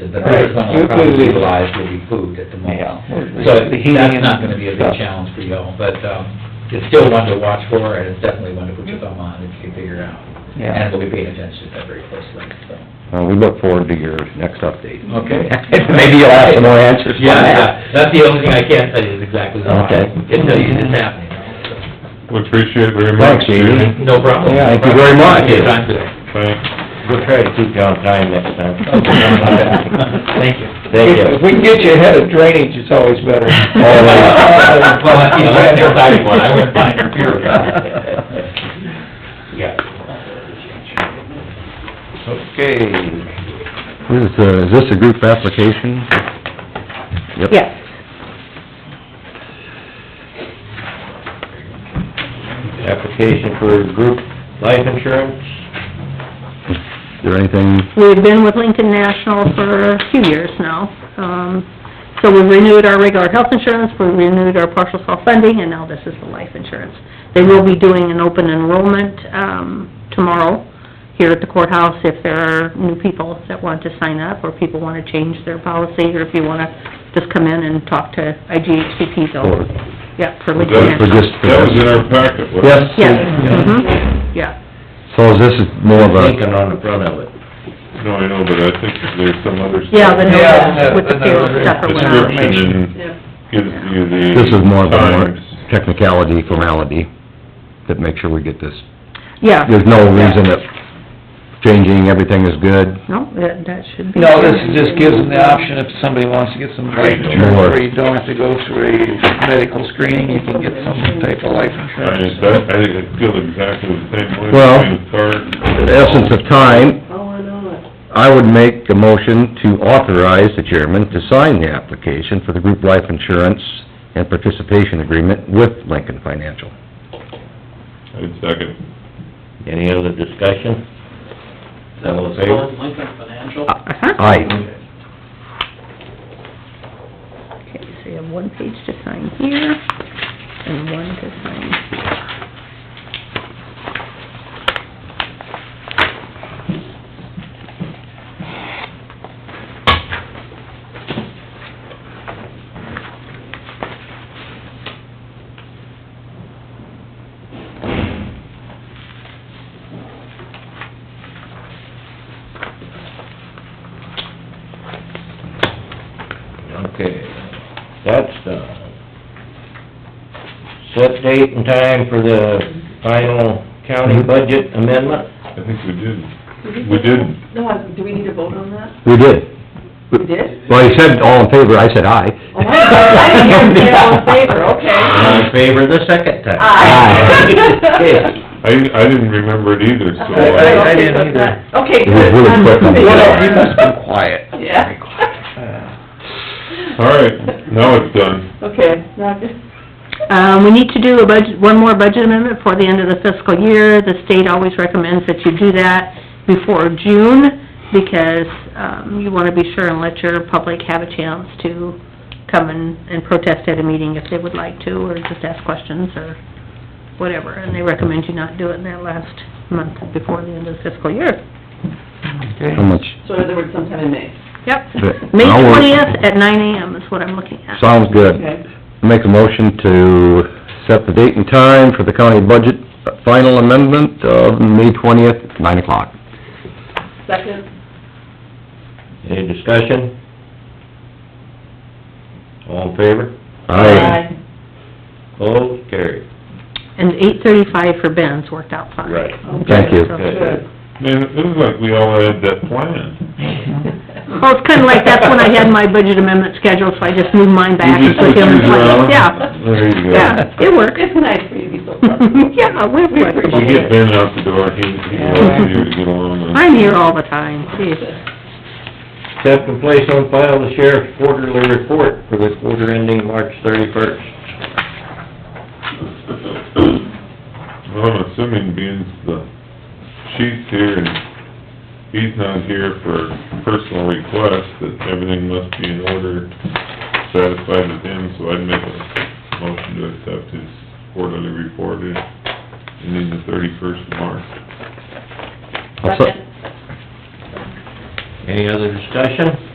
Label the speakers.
Speaker 1: is the first one
Speaker 2: Right.
Speaker 1: will probably
Speaker 2: Food.
Speaker 1: utilize will be food at the moment.
Speaker 2: Yeah.
Speaker 1: So
Speaker 2: The heating
Speaker 1: that's not gonna be a
Speaker 2: and
Speaker 1: big
Speaker 2: stuff.
Speaker 1: challenge for y'all, but, um, it's still one to watch for, and it's definitely one to put your thumb on if you can figure out. And
Speaker 2: Yeah.
Speaker 1: we'll be paying attention to that very closely, so.
Speaker 3: Uh, we look forward to your next update.
Speaker 1: Okay.
Speaker 3: Maybe you'll have some more answers for
Speaker 1: Yeah,
Speaker 3: that.
Speaker 1: yeah, that's the only thing I can't tell you is exactly why.
Speaker 3: Okay.
Speaker 1: It's, it's happening,
Speaker 4: We appreciate it very much.
Speaker 3: Thanks, Jamie.
Speaker 1: no problem.
Speaker 3: Yeah, thank you very much.
Speaker 1: Your time today.
Speaker 4: Thanks.
Speaker 3: We'll try to keep you on time next time.
Speaker 1: Thank you.
Speaker 3: Thank you.
Speaker 2: If we can get you ahead of drainage, it's always better.
Speaker 3: yeah.
Speaker 1: Well, you know, that's your time one, I wouldn't mind your fear of Yeah.
Speaker 3: Okay. This is, uh, is this a group application? Yep.
Speaker 5: Yes.
Speaker 3: Application for group life insurance. Is there anything,
Speaker 5: We've been with Lincoln National for a few years now. Um, so we renewed our regular health insurance, we renewed our partial self-funding, and now this is the life insurance. They will be doing an open enrollment, um, tomorrow here at the courthouse if there are new people that want to sign up, or people want to change their policy, or if you want to just come in and talk to IGHCP,
Speaker 3: Or-
Speaker 5: they'll, yeah, for Lincoln
Speaker 4: That
Speaker 3: for
Speaker 5: National.
Speaker 3: just...
Speaker 4: that was in our packet, wasn't it?
Speaker 3: Yes?
Speaker 5: Yeah, mhm, yeah.
Speaker 3: So this is more of a...
Speaker 6: Lincoln on the front of it.
Speaker 4: No, I know, but I think there's some other... stuff.
Speaker 5: Yeah, the
Speaker 2: Yeah,
Speaker 5: note with the
Speaker 2: the- the
Speaker 5: payroll
Speaker 2: note.
Speaker 5: stuff or whatever.
Speaker 4: Description and gives you the...
Speaker 3: This is more of a more
Speaker 4: times.
Speaker 3: technicality, formality, that make sure we get this.
Speaker 5: Yeah.
Speaker 3: There's no reason that changing everything is good.
Speaker 5: No, that, that should be.
Speaker 2: No, this just gives them the option if somebody wants to get some life insurance, where you don't have to go through a medical screening, you can get some type of life
Speaker 4: I,
Speaker 2: insurance.
Speaker 4: that- I feel exactly the same way.
Speaker 3: Well,
Speaker 4: It's hard.
Speaker 3: The essence of time, I would make a motion to authorize the chairman to sign the application for the group life insurance and participation agreement with Lincoln Financial.
Speaker 4: I second.
Speaker 6: Any other discussion? Is that all in favor?
Speaker 5: Uh-huh.
Speaker 3: Aye.
Speaker 5: Okay, so you have one page to sign here, and one to sign.
Speaker 6: Okay, that's done. Set date and time for the final county budget amendment?
Speaker 4: I think we did. We did.
Speaker 7: No, I- do we need to vote on that?
Speaker 3: We did.
Speaker 7: We did?
Speaker 3: Well, you said all in favor, I said aye.
Speaker 7: Oh, I didn't hear you say all in favor, okay.
Speaker 6: All in favor the second time?
Speaker 7: Aye.
Speaker 6: Okay.
Speaker 4: I, I didn't remember it either, so... uh,
Speaker 2: I- I- I didn't
Speaker 7: Oh, Okay,
Speaker 3: It
Speaker 2: either.
Speaker 7: Okay,
Speaker 3: was
Speaker 7: good.
Speaker 3: really quick on the
Speaker 2: Well,
Speaker 3: draw.
Speaker 2: you must be
Speaker 3: quiet.
Speaker 7: Yeah.
Speaker 4: All right, now it's done.
Speaker 7: Okay, now, just,
Speaker 5: Um, we need to do a budget, one more budget amendment before the end of the fiscal year. The state always recommends that you do that before June, because, um, you wanna be sure and let your public have a chance to come and, and protest at a meeting if they would like to, or just ask questions, or whatever. And they recommend you not do it in that last month before the end of the fiscal year.
Speaker 3: How much,
Speaker 7: so in other words, sometime in May.
Speaker 3: But-
Speaker 5: Yep. May
Speaker 3: I'll work-
Speaker 5: twentieth at nine AM is what I'm looking at.
Speaker 3: sounds good.
Speaker 7: Okay.
Speaker 3: Make a motion to set the date and time for the county budget final amendment of May twentieth, nine o'clock.
Speaker 7: Second,
Speaker 6: Any discussion? All in favor?
Speaker 7: aye.
Speaker 6: Opposed, carried.
Speaker 5: And eight thirty-five for Ben's worked out fine.
Speaker 6: Right.
Speaker 3: Thank you.
Speaker 5: So-
Speaker 6: Good.
Speaker 4: Man, it was like we all had that planned.
Speaker 5: Well, it's kinda like, that's when I had my budget amendment scheduled, so I just moved mine back
Speaker 4: You
Speaker 5: and
Speaker 4: just
Speaker 5: put him
Speaker 4: switched
Speaker 5: in
Speaker 4: yours around?
Speaker 5: place. Yeah,
Speaker 4: There you go.
Speaker 5: yeah, it worked.
Speaker 7: It's nice for you to be so proud.
Speaker 5: Yeah, we worked.
Speaker 7: We
Speaker 4: We
Speaker 7: appreciate
Speaker 4: get
Speaker 7: it.
Speaker 4: Ben out the door, he, he wants you to get along on.
Speaker 5: I'm here all the time, geez.
Speaker 6: Accept and place on file the sheriff's quarterly report for the quarter ending March thirty-first.
Speaker 4: Well, I'm assuming being the chief's here and he's not here for personal requests, that everything must be in order, satisfied with him, so I'd make a motion to accept his quarterly report in- ending the thirty-first of March.
Speaker 3: I'll se-
Speaker 6: Any other discussion?